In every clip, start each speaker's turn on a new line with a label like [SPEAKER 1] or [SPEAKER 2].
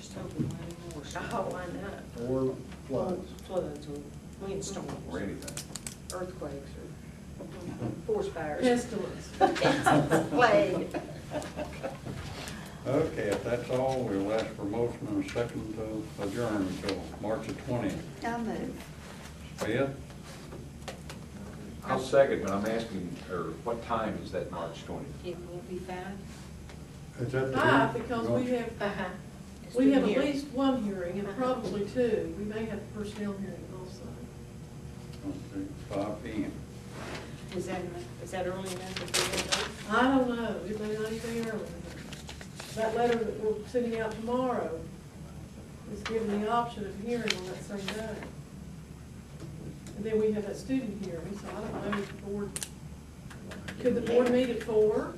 [SPEAKER 1] something way more, oh, why not?
[SPEAKER 2] or floods.
[SPEAKER 1] Floods or windstorms
[SPEAKER 3] Or
[SPEAKER 1] or
[SPEAKER 3] anything.
[SPEAKER 1] earthquakes or forest fires.
[SPEAKER 4] Pestilence.
[SPEAKER 1] Plague. Uh-huh.
[SPEAKER 5] Okay, if that's all, we'll ask for motion and a second to adjourn until March the twentieth.
[SPEAKER 6] I'll move.
[SPEAKER 5] Beth,
[SPEAKER 3] I'll second, but I'm asking, or what time is that March twentieth?
[SPEAKER 1] It will be fine.
[SPEAKER 5] is that? the-
[SPEAKER 4] Five, Ah, because we have,
[SPEAKER 1] It's
[SPEAKER 4] Uh-huh. we have
[SPEAKER 1] been
[SPEAKER 4] at
[SPEAKER 1] here.
[SPEAKER 4] least one hearing and probably two. We may have a personnel hearing also.
[SPEAKER 5] Okay, Five P M.
[SPEAKER 1] Is that, is that early enough to do
[SPEAKER 4] I don't know, it may not even be early. That letter that we're sending out tomorrow is given the option of hearing on that same day. And then we have that student hearing, so I don't know if the board, could the board meet at four?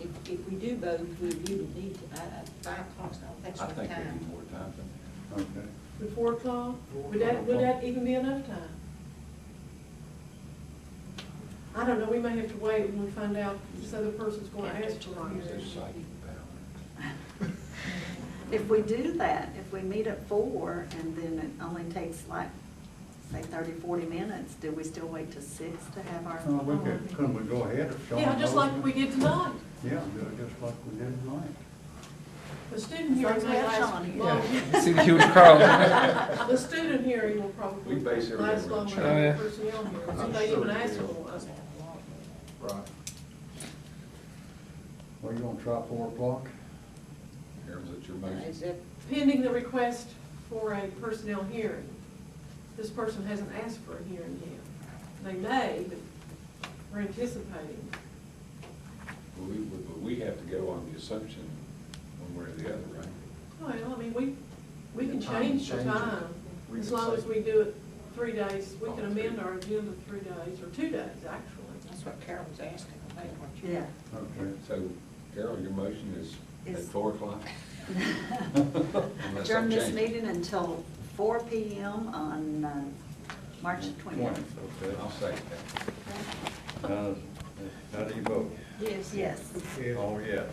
[SPEAKER 6] If, if we do both, we we would need to, uh, five o'clock's not, that's
[SPEAKER 3] I
[SPEAKER 6] what
[SPEAKER 3] think they need
[SPEAKER 6] time.
[SPEAKER 3] more time than
[SPEAKER 5] Okay.
[SPEAKER 4] Would four o'clock, would that, would that even be enough time? I don't know, we may have to wait when we find out this other person's gonna ask for a
[SPEAKER 3] that.
[SPEAKER 4] hearing.
[SPEAKER 3] It's psychic power.
[SPEAKER 6] If we do that, if we meet at four and then it only takes like, say thirty, forty minutes, do we still wait till six to have our?
[SPEAKER 5] Uh, we could, couldn't we go ahead if Sean?
[SPEAKER 4] Yeah, just like
[SPEAKER 5] knows?
[SPEAKER 4] we did tonight.
[SPEAKER 5] Yeah, do it just like we did tonight.
[SPEAKER 4] The student hearing
[SPEAKER 6] Let's
[SPEAKER 4] may
[SPEAKER 6] have
[SPEAKER 4] last
[SPEAKER 6] Sean here.
[SPEAKER 4] longer.
[SPEAKER 7] See the huge crowd.
[SPEAKER 4] The student hearing will probably
[SPEAKER 3] We base everything
[SPEAKER 4] last
[SPEAKER 3] on
[SPEAKER 4] longer
[SPEAKER 7] Oh, yeah.
[SPEAKER 4] than the personnel hearing, so
[SPEAKER 3] I'm
[SPEAKER 4] they
[SPEAKER 3] sure
[SPEAKER 4] even
[SPEAKER 3] it
[SPEAKER 4] ask for
[SPEAKER 3] will.
[SPEAKER 4] one.
[SPEAKER 3] Right.
[SPEAKER 5] Well, you gonna try four o'clock?
[SPEAKER 3] Aaron's at your
[SPEAKER 6] Uh,
[SPEAKER 3] motion.
[SPEAKER 6] Is it,
[SPEAKER 4] Pending the request for a personnel hearing. This person hasn't asked for a hearing yet. They may, but we're anticipating.
[SPEAKER 3] But we, but we have to go on the assumption one way or the other, right?
[SPEAKER 4] Well, I mean, we, we can
[SPEAKER 2] The time,
[SPEAKER 4] change the
[SPEAKER 2] change it.
[SPEAKER 4] time,
[SPEAKER 2] We
[SPEAKER 4] as
[SPEAKER 2] can
[SPEAKER 4] long
[SPEAKER 2] say-
[SPEAKER 4] as we do it three days, we
[SPEAKER 3] Oh,
[SPEAKER 4] can
[SPEAKER 3] three.
[SPEAKER 4] amend our agenda three days, or two days, actually.
[SPEAKER 1] That's what Carol was asking, I think, weren't you?
[SPEAKER 6] yeah.
[SPEAKER 5] Okay.
[SPEAKER 3] So, Carol, your motion is at
[SPEAKER 6] Is-
[SPEAKER 3] four o'clock? Unless
[SPEAKER 6] Adjourn
[SPEAKER 3] that
[SPEAKER 6] this
[SPEAKER 3] changes.
[SPEAKER 6] meeting until four P M on, uh, March twentieth.
[SPEAKER 5] Okay.
[SPEAKER 3] I'll second that.
[SPEAKER 5] Uh, How do you vote?
[SPEAKER 1] Yes.
[SPEAKER 6] Yes.
[SPEAKER 5] Oh, yes.